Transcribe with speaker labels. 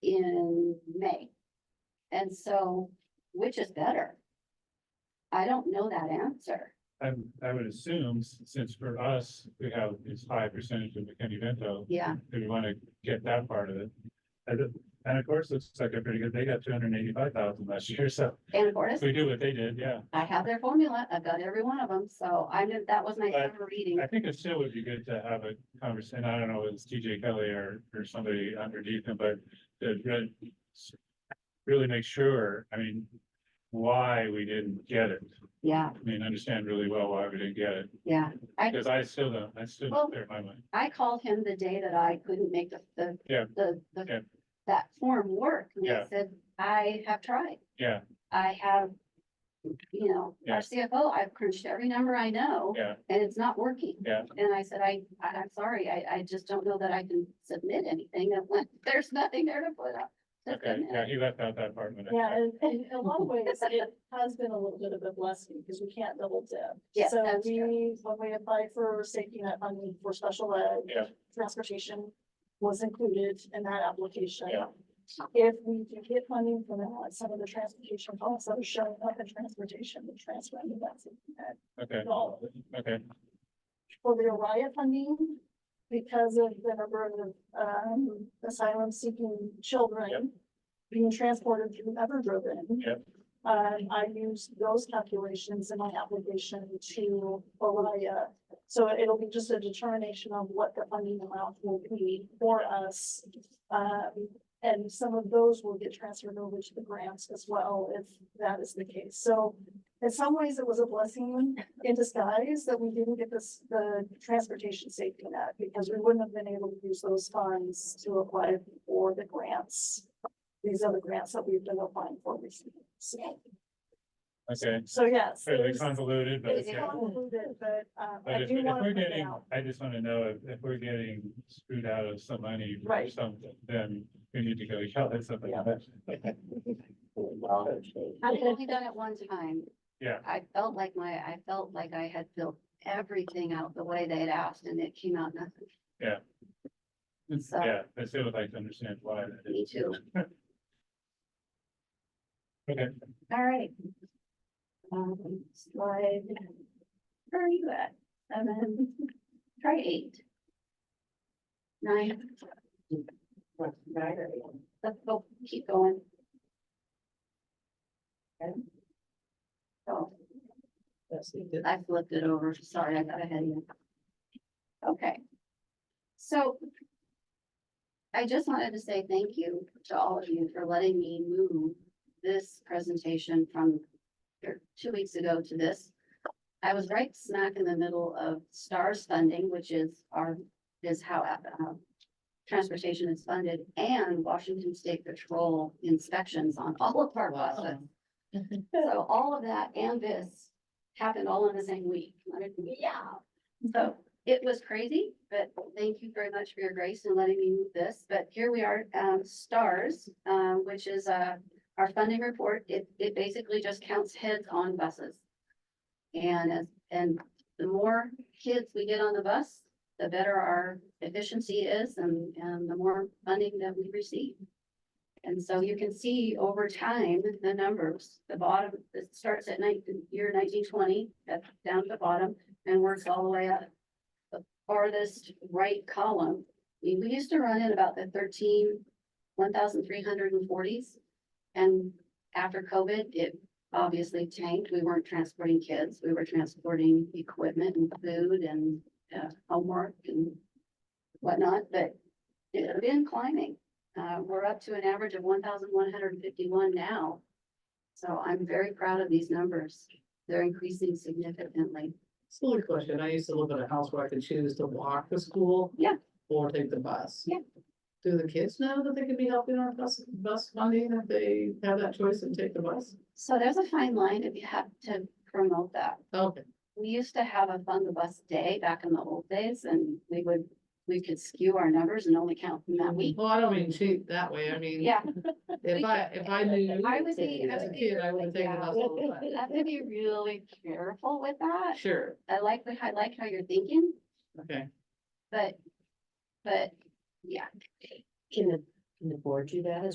Speaker 1: in May. And so, which is better? I don't know that answer.
Speaker 2: I'm, I would assume, s- since for us, we have this high percentage of McKinney Vento,
Speaker 1: Yeah,
Speaker 2: that we wanna get that part of it. And, it- and of course, looks like a pretty good, they got two hundred and eighty-five thousand last year, so
Speaker 1: and Fortis,
Speaker 2: if we do what they did, yeah.
Speaker 1: I have their formula. I've got every one of them. So I knew that was my
Speaker 2: But
Speaker 1: summer reading.
Speaker 2: I think it still would be good to have a conversation, I don't know, it's TJ Kelly or, or somebody underneath him, but to re- really make sure, I mean, why we didn't get it.
Speaker 1: Yeah,
Speaker 2: I mean, understand really well why we didn't get it,
Speaker 1: yeah. I,
Speaker 2: because I still don't, I still
Speaker 1: Well-
Speaker 2: don't clear my mind.
Speaker 1: I called him the day that I couldn't make the, the,
Speaker 2: Yeah.
Speaker 1: the,
Speaker 2: Yeah.
Speaker 1: the, that form work. And he
Speaker 2: Yeah.
Speaker 1: said, I have tried.
Speaker 2: Yeah,
Speaker 1: I have, you know,
Speaker 2: Yeah.
Speaker 1: our CFO, I've crunched every number I know.
Speaker 2: Yeah.
Speaker 1: And it's not working.
Speaker 2: Yeah.
Speaker 1: And I said, I, I, I'm sorry, I, I just don't know that I can submit anything. And when there's nothing there to put up. to
Speaker 2: okay,
Speaker 1: submit.
Speaker 2: yeah, he left out that part. when I-
Speaker 3: Yeah, and, and in a lot of ways, it has been a little bit of a blessing because we can't double dip.
Speaker 1: Yes,
Speaker 3: So
Speaker 1: that's true.
Speaker 3: we, when we applied for safety net funding for special ed.
Speaker 2: Yeah.
Speaker 3: Transportation was included in that application.
Speaker 2: Yeah.
Speaker 3: If we do get funding from that, some of the transportation costs that are showing up in transportation, we transfer into that safety net
Speaker 2: Okay,
Speaker 3: dollar
Speaker 2: okay,
Speaker 3: for the Orion funding because of the number of um asylum seeking
Speaker 2: Yep.
Speaker 3: children being transported through Everdriven.
Speaker 2: Yep.
Speaker 3: Um, I used those calculations in my application to Orion. So it'll be just a determination of what the funding amount will be for us. Um, and some of those will get transferred over to the grants as well, if that is the case. So in some ways, it was a blessing in disguise that we didn't get this, the transportation safety net, because we wouldn't have been able to use those funds to apply for the grants. These other grants that we've been applying for recently. So,
Speaker 2: okay.
Speaker 3: so yes.
Speaker 2: Fairly
Speaker 3: it's-
Speaker 2: convoluted, but
Speaker 3: It's
Speaker 2: yeah.
Speaker 3: convoluted, but, um,
Speaker 2: But
Speaker 3: I
Speaker 2: if, we-
Speaker 3: do
Speaker 2: if
Speaker 3: want to
Speaker 2: we're
Speaker 3: point
Speaker 2: getting,
Speaker 3: out.
Speaker 2: I just wanna know if, if we're getting screwed out of some money for
Speaker 3: Right.
Speaker 2: something, then we need to go yell at somebody.
Speaker 3: Yeah.
Speaker 1: I've only done it one time.
Speaker 2: Yeah.
Speaker 1: I felt like my, I felt like I had filled everything out the way they had asked and it came out nothing. So-
Speaker 2: Yeah, I still would like to understand why. that
Speaker 1: Me
Speaker 2: is.
Speaker 1: too.
Speaker 2: Okay,
Speaker 1: All right. Um, slide. Where are you at? Seven, try eight. Nine. Let's go, keep going. Oh, I flipped it over. Sorry, I got ahead of you. Okay. So I just wanted to say thank you to all of you for letting me move this presentation from or two weeks ago to this. I was right smack in the middle of STARS funding, which is our, is how uh, transportation is funded, and Washington State Patrol inspections on all of our buses. So all of that and this happened all in the same week. Like, Yeah. So it was crazy, but thank you very much for your grace in letting me move this. But here we are, um, STARS, um, which is, uh, our funding report. It, it basically just counts heads on buses. And, as- and the more kids we get on the bus, the better our efficiency is and, and the more funding that we receive. And so you can see over time, the numbers, the bottom, it starts at night, year nineteen twenty, at, down at the bottom, and works all the way up. The farthest right column, we, we used to run in about the thirteen, one thousand three hundred and forties. And after COVID, it obviously tanked. We weren't transporting kids. We were transporting equipment and food and, uh, homework and whatnot, but it had been climbing. Uh, we're up to an average of one thousand one hundred and fifty-one now. So I'm very proud of these numbers. They're increasing significantly.
Speaker 4: Silly question. I used to live in a house where I could choose to walk to school.
Speaker 1: Yeah.
Speaker 4: Or take the bus.
Speaker 1: Yeah.
Speaker 4: Do the kids know that they could be helping on bus, bus funding if they have that choice and take the bus?
Speaker 1: So there's a fine line if you have to promote that.
Speaker 4: Okay,
Speaker 1: We used to have a fund the bus day back in the old days and we would, we could skew our numbers and only count from that week.
Speaker 4: well, I don't mean cheat that way. I mean,
Speaker 1: Yeah,
Speaker 4: if I, if I knew.
Speaker 1: I would be- I
Speaker 4: As a
Speaker 1: would be
Speaker 4: kid, I would have taken the
Speaker 1: like,
Speaker 4: bus. all the
Speaker 1: I have to be really careful with that.
Speaker 4: time. Sure,
Speaker 1: I like, the- I like how you're thinking,
Speaker 4: okay.
Speaker 1: but, but, yeah.
Speaker 5: Can the, can the board do that as